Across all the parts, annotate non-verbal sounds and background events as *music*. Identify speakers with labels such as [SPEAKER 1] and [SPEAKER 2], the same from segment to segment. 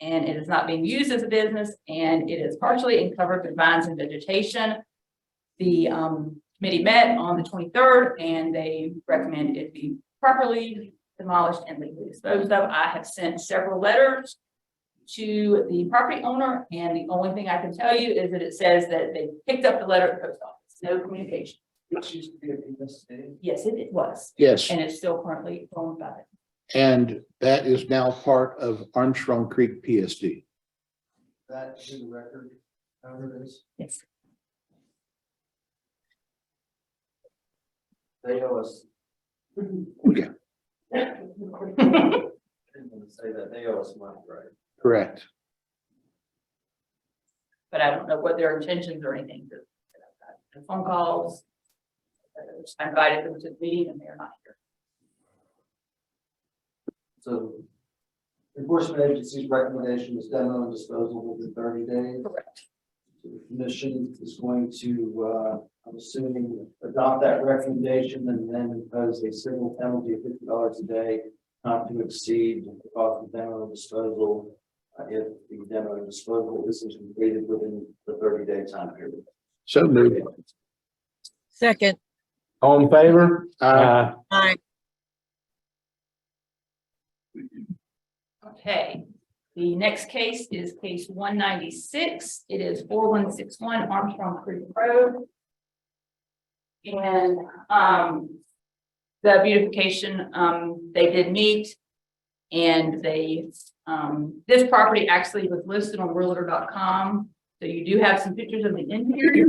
[SPEAKER 1] and it is not being used as a business, and it is partially uncovered with vines and vegetation. The um, committee met on the twenty-third, and they recommend it be properly demolished and legally disposed of. I have sent several letters to the property owner, and the only thing I can tell you is that it says that they picked up the letter at the post office, no communication.
[SPEAKER 2] Which used to be a business city.
[SPEAKER 1] Yes, it it was,
[SPEAKER 3] Yes,
[SPEAKER 1] and it's still currently owned by it.
[SPEAKER 3] and that is now part of Armstrong Creek PSD.
[SPEAKER 2] That is in the record. However, it is,
[SPEAKER 1] Yes.
[SPEAKER 2] they owe us. I
[SPEAKER 3] Yeah,
[SPEAKER 1] *laughs*
[SPEAKER 2] didn't want to say that. They owe us money, right?
[SPEAKER 3] correct.
[SPEAKER 1] But I don't know what their intentions or anything. but I've got Phone calls. uh, I invited them to the meeting and they're not here.
[SPEAKER 2] So. Enforcement agency's recommendation is demo and disposal within thirty days.
[SPEAKER 1] Correct.
[SPEAKER 2] So The commission is going to, uh, I'm assuming, adopt that recommendation and then impose a civil penalty of fifty dollars a day. Not to exceed the cost of demo and disposal, uh, if the demo and disposal isn't completed within the thirty day time period.
[SPEAKER 3] So moved.
[SPEAKER 4] Second,
[SPEAKER 5] All in favor?
[SPEAKER 3] Uh,
[SPEAKER 4] aye,
[SPEAKER 1] Okay, the next case is case one ninety-six. It is four one six one Armstrong Creek Road. And, um, the beautification, um, they did meet. And they, um, this property actually was listed on realtor.com. So you do have some pictures of the interior.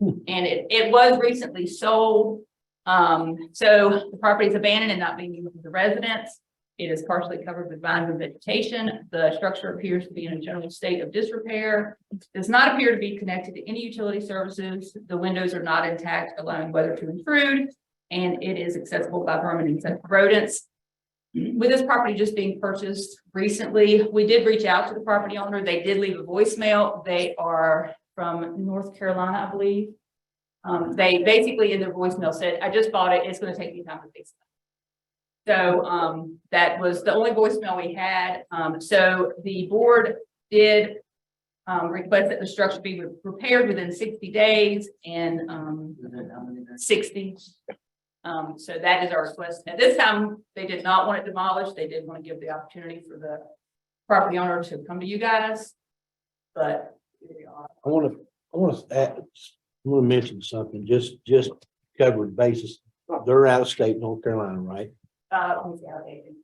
[SPEAKER 1] And it, it was recently sold. Um, so the property is abandoned and not being used as a residence. It is partially covered with vines and vegetation. The structure appears to be in a general state of disrepair. Does not appear to be connected to any utility services. The windows are not intact, allowing weather to intrude. And it is accessible by vermin and insect rodents. With this property just being purchased recently, we did reach out to the property owner. They did leave a voicemail. They are from North Carolina, I believe. Um, they basically in their voicemail said, I just bought it. It's gonna take me time to fix it. So um, that was the only voicemail we had. Um, so the board did um, request that the structure be repaired within sixty days and um,
[SPEAKER 2] Within how many days?
[SPEAKER 1] sixty. Um, so that is our request. At this time, they did not want it demolished. They did want to give the opportunity for the property owner to come to you guys. But here we are.
[SPEAKER 6] I wanna, I wanna, add- I wanna mention something, just, just covered basis. They're out of state North Carolina, right?
[SPEAKER 1] uh, let me see how they do.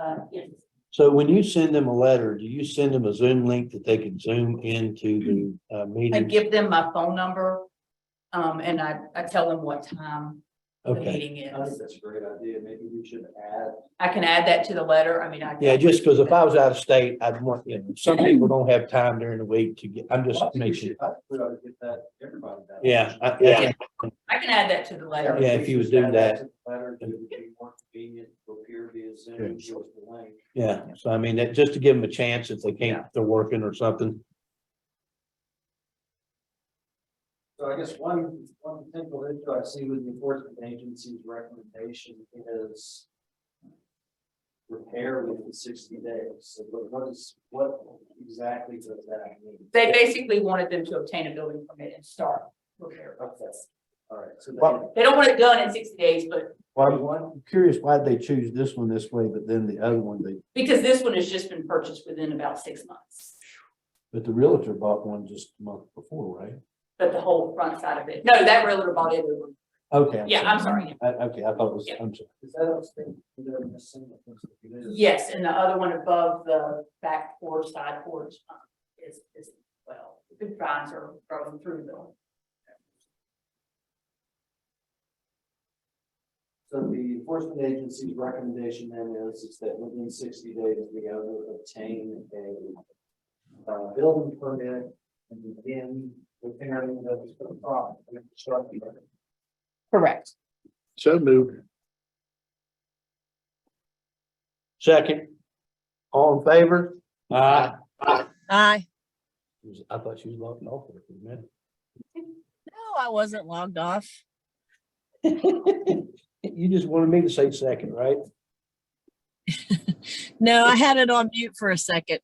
[SPEAKER 1] Uh, yes,
[SPEAKER 6] So when you send them a letter, do you send them a Zoom link that they can zoom into the uh,
[SPEAKER 1] I
[SPEAKER 6] meeting?
[SPEAKER 1] give them my phone number. Um, and I, I tell them what time the
[SPEAKER 6] Okay,
[SPEAKER 1] meeting
[SPEAKER 2] I think
[SPEAKER 1] is.
[SPEAKER 2] that's a great idea. Maybe we should add
[SPEAKER 1] I can add that to the letter, I mean, I.
[SPEAKER 6] yeah, just because if I was out of state, I'd want, you know, some people don't have time during the week to get, I'm just
[SPEAKER 2] Well, I think we
[SPEAKER 6] making.
[SPEAKER 2] should- I think We ought to get that, everybody that.
[SPEAKER 6] Yeah, I,
[SPEAKER 1] Yeah.
[SPEAKER 6] yeah,
[SPEAKER 1] I can add that to the letter,
[SPEAKER 6] Yeah, if you would do
[SPEAKER 2] Add
[SPEAKER 6] that.
[SPEAKER 2] to the Letter, it would be more convenient to appear via Zoom, give us the link.
[SPEAKER 6] yeah. So I mean, that, just to give them a chance if they can't, they're working or something.
[SPEAKER 2] So I guess one, one potential issue I see with the enforcement agency's recommendation is repair within sixty days. So what- what is, what exactly does that mean?
[SPEAKER 1] they basically wanted them to obtain a building permit and start repair process.
[SPEAKER 2] All right, so
[SPEAKER 6] Well,
[SPEAKER 2] that,
[SPEAKER 1] They don't want it done in sixty days, but
[SPEAKER 6] Well, I'm curious why they choose this one this way, but then the other one they
[SPEAKER 1] because this one has just been purchased within about six months.
[SPEAKER 6] But the realtor bought one just a month before, right?
[SPEAKER 1] But the whole front side of it, no, that realtor bought it,
[SPEAKER 6] Okay.
[SPEAKER 1] yeah, I'm sorry,
[SPEAKER 6] I, okay, I thought it was, I'm sorry.
[SPEAKER 2] is that a thing? They're missing the things that it is.
[SPEAKER 1] yes, and the other one above the back porch, side porch, um, is, is, well, the vines are growing through the
[SPEAKER 2] So the enforcement agency's recommendation then is, is that within sixty days, we have to obtain a uh, building permit and begin repairing the the property. and constructing it.
[SPEAKER 1] Correct.
[SPEAKER 3] So moved.
[SPEAKER 6] Second. All in favor? Aye.
[SPEAKER 4] aye.
[SPEAKER 6] I thought she was locked off there for a minute.
[SPEAKER 4] No, I wasn't logged off.
[SPEAKER 6] *laughs* You just wanted me to say second, right?
[SPEAKER 4] No, I had it on mute for a second.